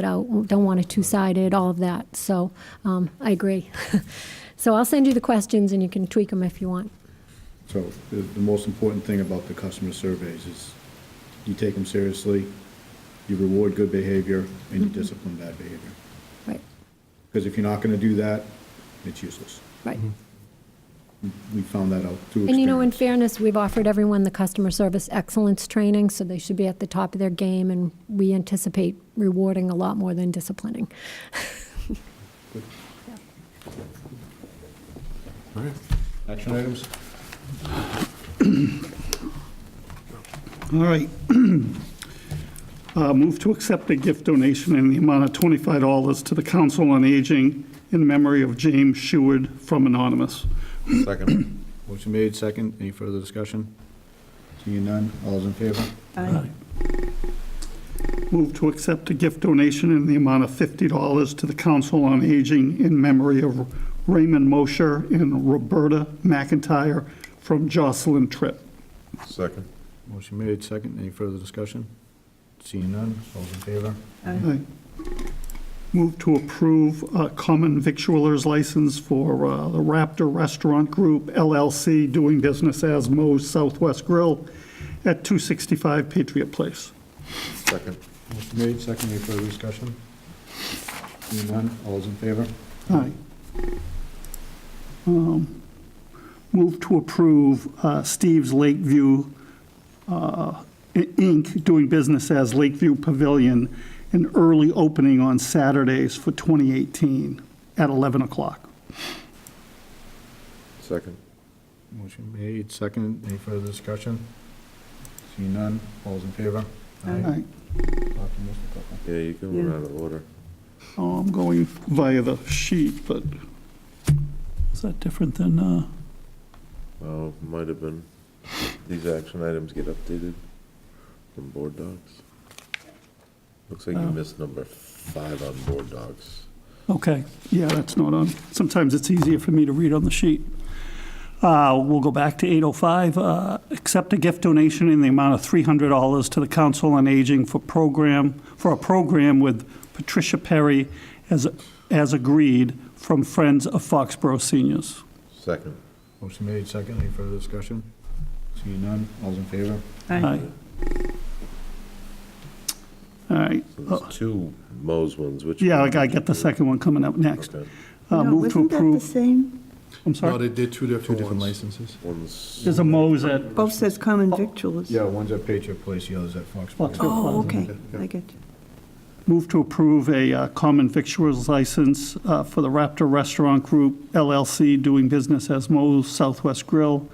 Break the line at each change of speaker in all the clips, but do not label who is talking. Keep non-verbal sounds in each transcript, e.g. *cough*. it out, don't want it two-sided, all of that. So um, I agree. *laughs* So I'll send you the questions and you can tweak them if you want.
So the, the most important thing about the customer surveys is you take them seriously, you reward good behavior, and you
Mm-hmm.
discipline bad behavior.
Right,
Because if you're not gonna do that, it's useless.
right.
We found that out through
And you know, in
experience.
fairness, we've offered everyone the customer service excellence training, so they should be at the top of their game, and we anticipate rewarding a lot more than disciplining. *laughs*
All right. Action items?
All right. *clears throat* Uh, Move to accept a gift donation in the amount of $25 to the Council on Aging in memory of James Sheward from Anonymous.
Second.
*clears throat* Motion made, second. Any further discussion? Seeing none, all's in favor?
Move to accept a gift donation in the amount of $50 to the Council on Aging in memory of Raymond Mosher and Roberta McIntyre from Jocelyn Tripp.
Second.
Motion made, second. Any further discussion? Seeing none, all's in favor?
Aye. Move to approve a common victualer's license for uh, the Raptor Restaurant Group LLC, doing business as Mo's Southwest Grill at 265 Patriot Place.
Second.
Motion made, second. Any further discussion? Seeing none, all's in favor?
Aye. Um, Move to approve uh, Steve's Lakeview uh, I- Inc., doing business as Lakeview Pavilion, an early opening on Saturdays for 2018 at 11 o'clock.
Second.
Motion made, second. Any further discussion? Seeing none, all's in favor?
Aye.
Talk to Mr. Cutler.
Yeah, you can run out of order.
Oh, I'm going via the sheet, but is that different than, uh,
Oh, might have been. These action items get updated from board docs. Looks like you
Oh.
missed number five on board docs.
okay, yeah, that's not on. Sometimes it's easier for me to read on the sheet. Uh, We'll go back to 805. Uh, Accept a gift donation in the amount of $300 to the Council on Aging for program, for a program with Patricia Perry as, as agreed from Friends of Foxborough Seniors.
Second.
Motion made, second. Any further discussion? Seeing none, all's in favor?
Aye. All right.
So
Uh,
there's two Mo's ones, which?
Yeah, I
one
gotta
did
get the
you do?
second one coming up next.
Okay.
Uh,
No,
Move to
Wasn't that the
approve,
same?
I'm
No,
sorry.
they did
Two
two different
different
ones.
licenses?
One's,
There's a Mo's at
Both says common victuals.
Yeah, one's at Patriot Place, the other's at Foxborough.
Foxborough.
Oh, okay, I get you.
Move to approve a uh, common victuals license uh, for the Raptor Restaurant Group LLC doing business as Mo's Southwest Grill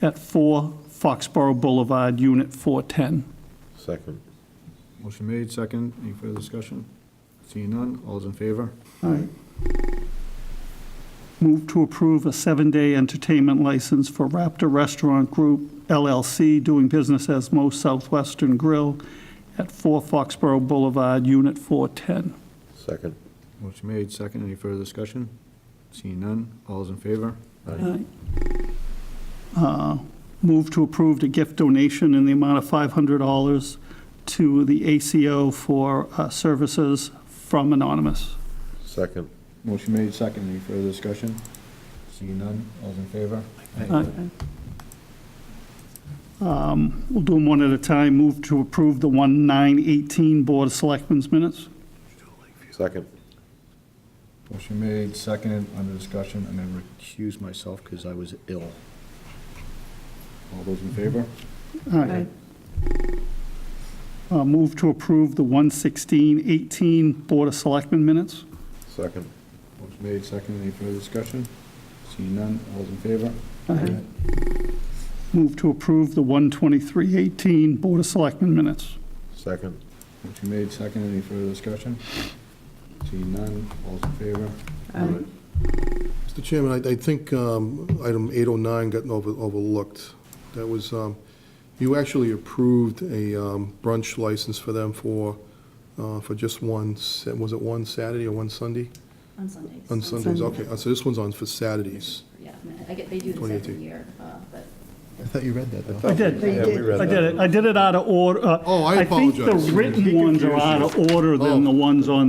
at 4 Foxborough Boulevard, Unit 410.
second.
Motion made, second. Any further discussion? Seeing none, all's in favor?
Move to approve a seven-day entertainment license for Raptor Restaurant Group LLC doing business as Mo's Southwestern Grill at 4 Foxborough Boulevard, Unit 410.
Second.
Motion made, second. Any further discussion? Seeing none, all's in favor?
Uh, Move to approve a gift donation in the amount of $500 to the ACO for uh, services from Anonymous.
Second.
Motion made, second. Any further discussion? Seeing none, all's in favor?
Aye. Um, We'll do them one at a time. Move to approve the 1918 Board of Selectmen's minutes.
Second.
Motion made, second. Under discussion, I'm gonna recuse myself because I was ill. All those in favor?
Aye. Uh, Move to approve the 11618 Board of Selectmen minutes.
Second.
Motion made, second. Any further discussion? Seeing none, all's in favor?
Aye. Move to approve the 12318 Board of Selectmen minutes.
Second.
Motion made, second, any further discussion? Seeing none, all's in favor?
Aye.
Mr. Chairman, I, I think um, item 809 got over- overlooked. That was, um, you actually approved a um, brunch license for them for, uh, for just one, sa- was it one Saturday or one Sunday?
On Sundays.
On Sundays,
Sunday.
okay, Uh, so this one's on for Saturdays.
Yeah, I mean, I get, they do this every
2018.
year, uh, but
I thought you read that, though.
I did.
They did.
I did it, I did it out of order. uh,
Oh, I
I think the
apologize.
written ones are out of order than the ones on